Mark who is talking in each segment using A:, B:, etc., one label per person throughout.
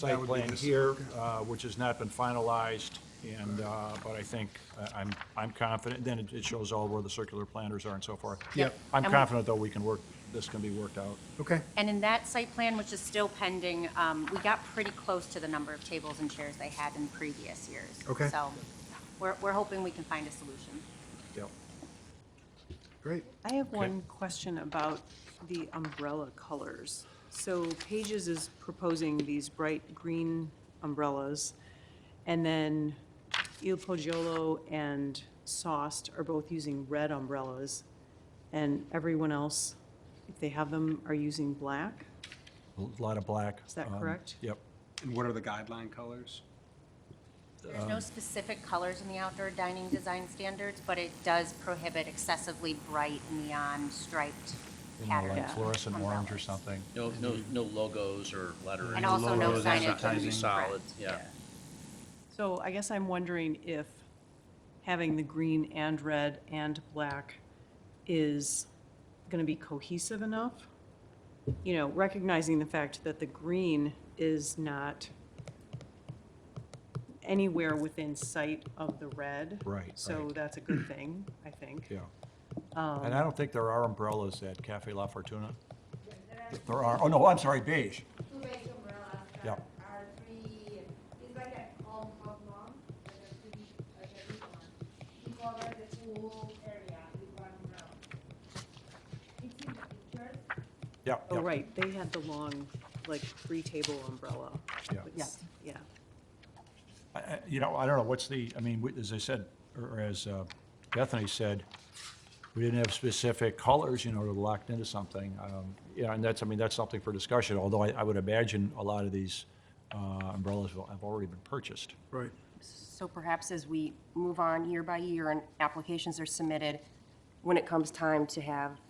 A: site
B: would be
A: plan
B: this,
A: here, uh, which has not been finalized, and, uh, but I think, uh, I'm, I'm confident, then it- it shows all where the circular planters are and so forth.
B: Yep.
A: I'm
C: And we-
A: confident, though, we can work, this can be worked out.
B: Okay,
C: And in that site plan, which is still pending, um, we got pretty close to the number of tables and chairs they had in previous years.
B: Okay.
C: So we're, we're hoping we can find a solution.
A: Yep.
B: great.
D: I have one question about the umbrella colors. So Pages is proposing these bright green umbrellas, and then Il Poggiolo and Sost are both using red umbrellas, and everyone else, if they have them, are using black?
A: A lot of black.
D: Is that
A: um,
D: correct?
A: Yep.
E: And what are the guideline colors?
C: There's
A: Um,
C: no specific colors in the outdoor dining design standards, but it does prohibit excessively bright neon striped
A: You know,
C: patterns.
A: Like fluorescent orange or
C: umbrellas.
A: something.
F: No, no, no logos or lettering.
C: And also no
E: logos,
C: signage.
E: advertising.
C: would be
F: Solid,
C: correct.
F: yeah.
D: So I guess I'm wondering if having the green and red and black is going to be cohesive enough? You know, recognizing the fact that the green is not anywhere within sight of the red.
A: Right,
D: So
A: right.
D: that's a good thing, I think.
A: Yeah.
D: Um,
A: And I don't think there are umbrellas at Cafe La Fortuna. There are, oh, no, I'm sorry, beige.
G: two big umbrellas
A: Yeah.
G: that are three, it's like a home hug mom, like a big, like a big one. We cover the whole area with one umbrella. It's in the pictures,
A: Yeah.
D: Oh,
A: yeah.
D: right, they had the long, like, three-table umbrella.
A: Yeah.
D: Yes. Yeah.
A: I- I- You know, I don't know, what's the, I mean, we- as I said, or or as uh, Bethany said, we didn't have specific colors, you know, that locked into something. Um, Yeah, and that's, I mean, that's something for discussion, although I I would imagine a lot of these uh, umbrellas will- have already been purchased.
B: Right.
H: So perhaps as we move on year by year and applications are submitted, when it comes time to have,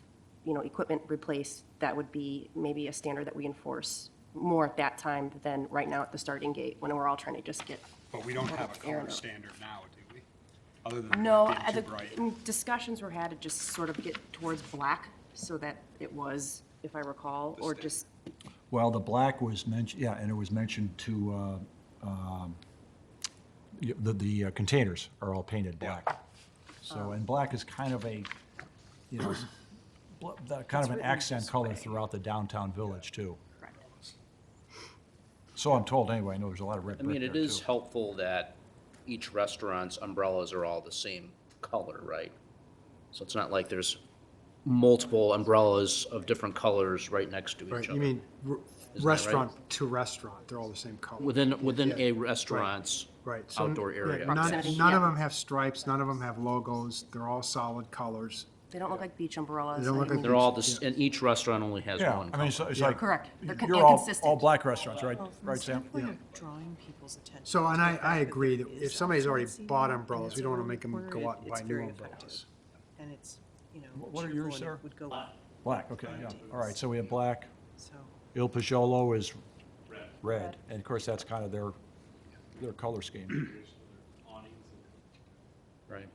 H: you know, equipment replaced, that would be maybe a standard that we enforce more at that time than right now at the starting gate, when we're all trying to just get.
E: But we don't have a
H: Fair
E: color
H: enough.
E: standard now, do we? Other than
H: No,
E: not
H: I
E: being too
H: think
E: bright.
H: discussions were had to just sort of get towards black so that it was, if I recall, or just,
A: Well, the black was mentioned, yeah, and it was mentioned to, uh, um, y- the, the uh, containers are all painted black. So, and black is kind of a, you know, s- bl- the- kind of an accent color throughout the downtown village, too. So I'm told, anyway, I know there's a lot of red
F: I
A: brick
F: mean,
A: there,
F: it
A: too.
F: is helpful that each restaurant's umbrellas are all the same color, right? So it's not like there's multiple umbrellas of different colors right next to
B: Right,
F: each other.
B: you mean r-
F: right?
B: restaurant to restaurant, they're all the same color.
F: Within, within a restaurant's
B: Right. so-
F: outdoor
B: yeah,
F: area.
B: None,
H: Proximity,
B: none of
H: yeah.
B: them have stripes, none of them have logos, they're all solid colors.
H: they don't look like beach umbrellas.
B: They don't
H: I
B: look
H: mean,
B: like
F: They're all, the s- and each restaurant only has
A: Yeah,
F: one
A: I mean,
F: color.
A: it's it's like.
H: Correct. They're con-
A: You're
H: and
A: all, all
H: consistent.
A: black restaurants, right, right, Sam?
D: Some point of drawing people's attention.
B: So, and
D: to the
B: I, I
D: fact that
B: agree
D: there
B: that if
D: is
B: somebody's already
D: options, you
B: bought
D: know, and
B: umbrellas,
D: it's
B: we don't wanna
D: around
B: make
D: the
B: them
D: corner,
B: go out and
D: it-
B: buy
D: it's
B: new
D: very effective.
B: umbrellas.
D: And it's, you know.
A: What are
D: cheerful
A: yours,
D: and it
A: Sarah?
D: Would go up,
A: Black, okay, yeah, all right, so we have black.
D: so.
A: Il Pajolo is red, and of course, that's kind of their, their color scheme.
F: Right.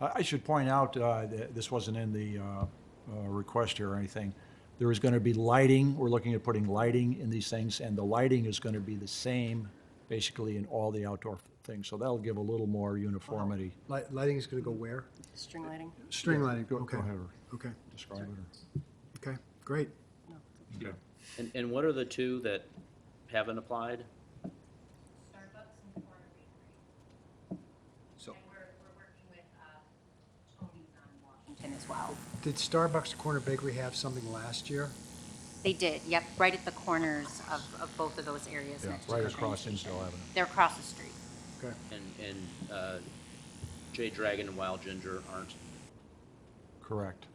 A: I I should point out, uh, that this wasn't in the uh, uh, request here or anything, there is going to be lighting, we're looking at putting lighting in these things, and the lighting is going to be the same, basically, in all the outdoor things, so that'll give a little more uniformity.
B: Light, lighting's gonna go where?
H: String lighting.
B: String lighting,
A: Go
B: okay,
A: go ahead or
B: okay,
A: describe it. or-
B: okay, great.
F: And, and what are the two that haven't applied?
G: Starbucks and Corner Bakery.
E: So-
G: And we're, we're working with, uh, Tony's on
C: Washington as well.
B: Did Starbucks Corner Bakery have something last year?
C: They did, yep, right at the corners of, of both of those areas.
A: Yeah,
C: next to
A: right
C: the train
A: across
C: station.
A: Hinsdale Avenue.
C: They're across the street.
B: Okay,
F: And, and, uh, Jay Dragon and Wild Ginger aren't.
A: Correct.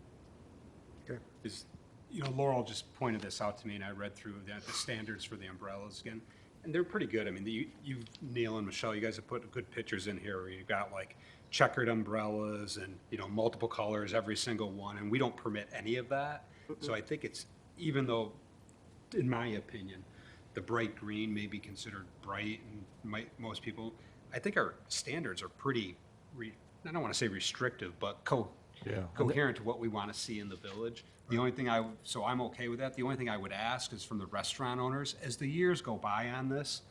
B: okay.
E: Is, you know, Laurel just pointed this out to me, and I read through the, the standards for the umbrellas again, and they're pretty good. I mean, you, you, Neil and Michelle, you guys have put good pictures in here, where you've got like checkered umbrellas and, you know, multiple colors, every single one, and we don't permit any of that. So I think it's, even though, in my opinion, the bright green may be considered bright and might, most people, I think our standards are pretty, re, I don't want to say restrictive, but co,
A: Yeah.
E: coherent to what we want to see in the village. The only thing I, so I'm okay with that. The only thing I would ask is from the restaurant owners, as the years go by on this,